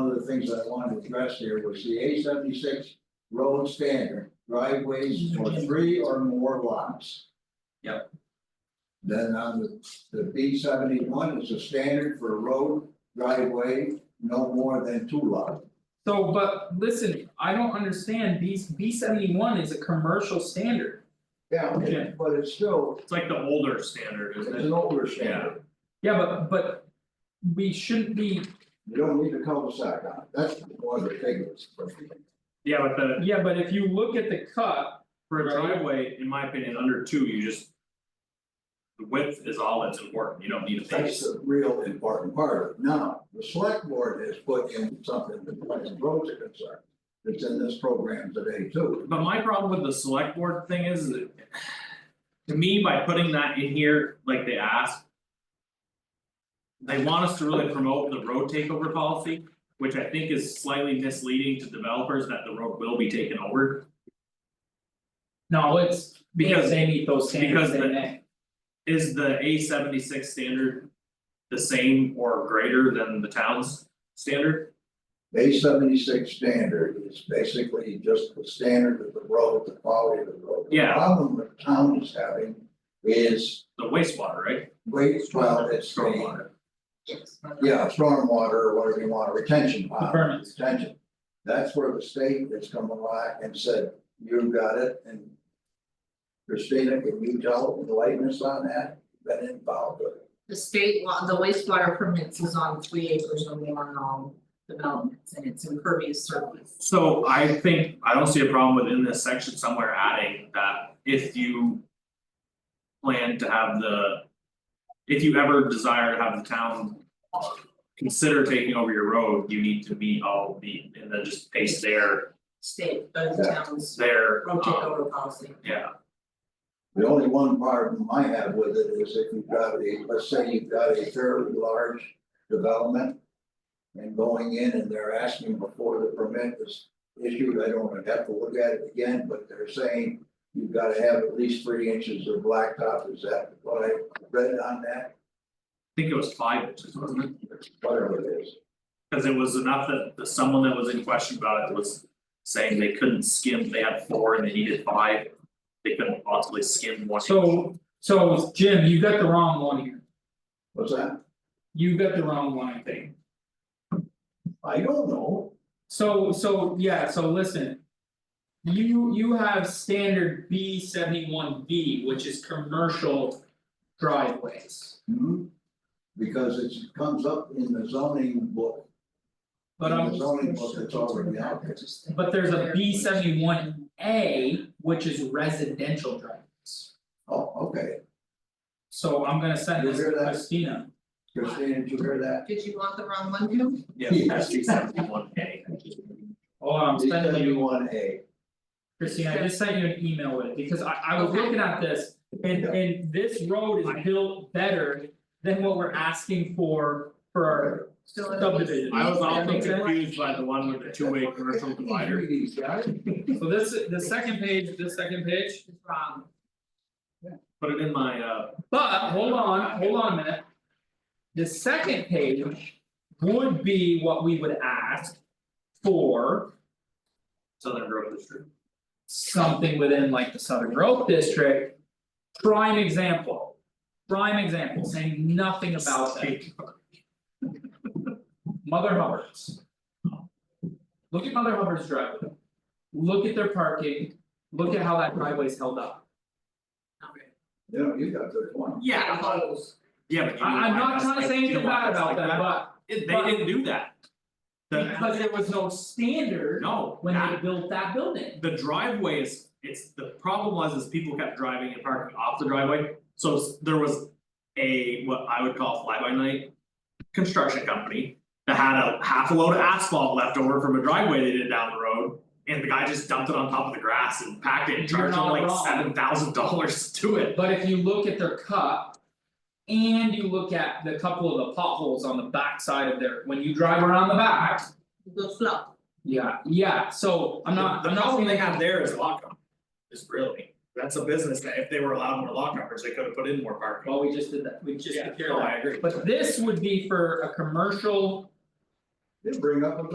the things that I wanted to address here was the A seventy-six road standard, driveways for three or more lots. Yep. Then on the, the B seventy-one is a standard for road driveway, no more than two lots. So, but listen, I don't understand, B B seventy one is a commercial standard, Yeah, okay, but it's still, It's like the older standard, it's isn't an it? older standard. standard, yeah, but but. We shouldn't be, you don't need a cul-de-sac on it, that's one of the things. Yeah, but the, yeah, but if you look at the cut, for a Right. driveway, in my opinion, under two, you just. The width is all that's important, you don't need a That's base, the real important part of it. Now, the select board has put in something as far as roads are concerned. It's in this program today too. but my problem with the select board thing is that. To me, by putting that in here, like they asked. They want us to really promote the road takeover policy, which I think is slightly misleading to developers that the road will be taken over. no, it's because Because- they meet those standards, because they the- may. Is the A seventy six standard the same or greater than the town's standard? A seventy-six standard is basically just the standard of the road, the quality of the road. The Yeah. problem the town is having is the wastewater, right? waste, well, it's the, Stormwater. yeah, stormwater or whatever you want, retention The pond. permits, Attention, That's where the state has come alive and said, you've got it and. Christina, can you tell the lightness on that, been involved with it? The state law, the wastewater permits is on three acres or more in all developments and it's impervious surface. So I think, I don't see a problem within this section somewhere adding that if you. Plan to have the. If you ever desire to have the town. Consider taking over your road, you need to meet all the, and then just paste their, State, both towns, their, road um, takeover policy. yeah, The only one problem I have with it is if you've got a, let's say you've got a fairly large development. And going in and they're asking before the permit is issued, I don't wanna have to look at it again, but they're saying. You've gotta have at least three inches of blacktop, is that what I read on that, I think it was five inches, wasn't it? whatever it is, Cause it was enough that the someone that was in question about it was saying they couldn't skim, they had four and they needed five. They couldn't possibly skim one. so so Jim, you got the wrong one here, what's that? you got the wrong one, I think. I don't know. So so, yeah, so listen. You you have standard B seventy one B, which is commercial driveways. Hmm. Because it's- it comes up in the zoning book, But There's um, only book that's already out there. but there's a B seventy one A, which is residential driveways. Oh, okay, So I'm gonna send You this to hear that? Christina. Christine, did you hear that? Did you want the wrong one too? Yeah, that's three seventy one A. Oh, I'm sending you, One A, Christina, I just sent you an email with it, because I I was Okay. looking at this. And Yeah. and this road is built better than what we're asking for for our Still in the Subdivision. I was also Makes sense. confused by the one with the two way commercial divider. So this, the second page, this second page, It's wrong. Put it in my uh, but hold on, hold on a minute. The second page would be what we would ask for southern growth district. something within like the Southern Grove District. Prime example, prime example, saying nothing about that, Mother Hubbard's. Look at Mother Hubbard's driveway, look at their parking, look at how that driveway's held up. You know, you got a good point. Yeah, but- yeah, but you. I I'm not trying to say anything bad about that, but It- They didn't do that. The, because there was no standard no, when they that- built that building. the driveway is, it's, the problem was is people kept driving and parking off the driveway. So s- there was a, what I would call fly by night construction company that had a half a load of asphalt left over from a driveway they did down the road. And the guy just dumped it on top of the grass and packed it and You're charged him not like wrong. seven thousand dollars to it. But if you look at their cut. And you look at the couple of the potholes on the backside of their, when you drive around the back. Go slow. Yeah, yeah, so I'm not, The I'm not problem they saying, have there is lockup. Is really, that's a business that if they were allowed more lock numbers, they could have put in more parking. well, we just did that, we just Yeah, Oh, did that. no, I agree. But this would be for a commercial. They bring up a